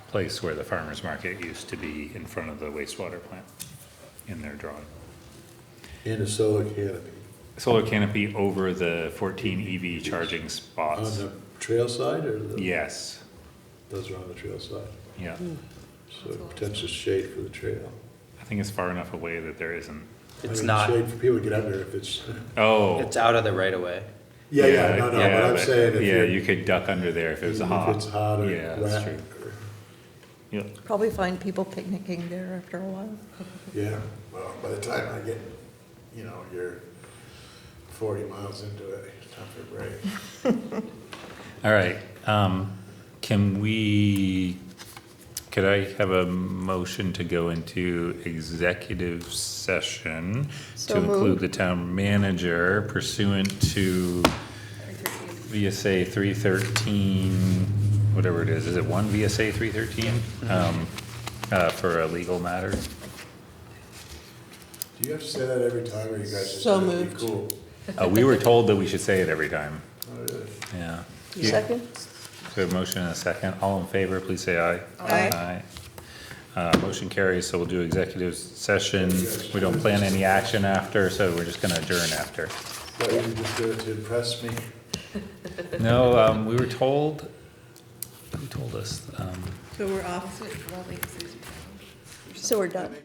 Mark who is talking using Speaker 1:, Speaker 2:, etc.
Speaker 1: place where the farmer's market used to be in front of the wastewater plant in their drawing.
Speaker 2: And a solar canopy.
Speaker 1: Solar canopy over the fourteen EV charging
Speaker 2: On
Speaker 1: spots.
Speaker 2: the trail side or the?
Speaker 1: Yes,
Speaker 2: Those are on the trail side,
Speaker 1: yeah.
Speaker 2: Hmm. so potential shade for the trail.
Speaker 1: I think it's far enough away that there isn't.
Speaker 2: I
Speaker 3: It's
Speaker 2: mean,
Speaker 3: not,
Speaker 2: Shade for people to get under if it's,
Speaker 1: Oh.
Speaker 3: it's out of the right of way.
Speaker 2: yeah, yeah, no, no, but
Speaker 1: yeah,
Speaker 2: I'm
Speaker 1: but-
Speaker 2: saying if
Speaker 1: Yeah,
Speaker 2: you're.
Speaker 1: you could duck under there if it was hot.
Speaker 2: If it's hot or
Speaker 1: Yeah, that's
Speaker 2: wet,
Speaker 1: true.
Speaker 2: or-
Speaker 1: Yeah.
Speaker 4: Probably find people picnicking there after a while.
Speaker 2: yeah, well, by the time I get, you know, you're forty miles into it, it's time for a break.
Speaker 1: All right, um, can we, could I have a motion to go into executive session?
Speaker 4: So
Speaker 1: To include
Speaker 4: moved.
Speaker 1: the town manager pursuant to VSA three thirteen, whatever it is, is it one VSA three thirteen?
Speaker 4: Mm-hmm.
Speaker 1: Um, uh, for a legal matter?
Speaker 2: Do you have to say that every time or you guys just?
Speaker 4: So
Speaker 2: let it be
Speaker 4: moved.
Speaker 2: Cool.
Speaker 1: Uh, we were told that we should say it every time,
Speaker 2: Oh, really?
Speaker 1: yeah.
Speaker 4: Second?
Speaker 1: So a motion and a second. All in favor, please say aye.
Speaker 4: Aye.
Speaker 1: Aye. Uh, motion carries, so we'll do executive session. We don't plan any action after, so we're just gonna adjourn after.
Speaker 2: Thought you could just do it to impress me.
Speaker 1: No, um, we were told, who told us? Um,
Speaker 4: So we're done.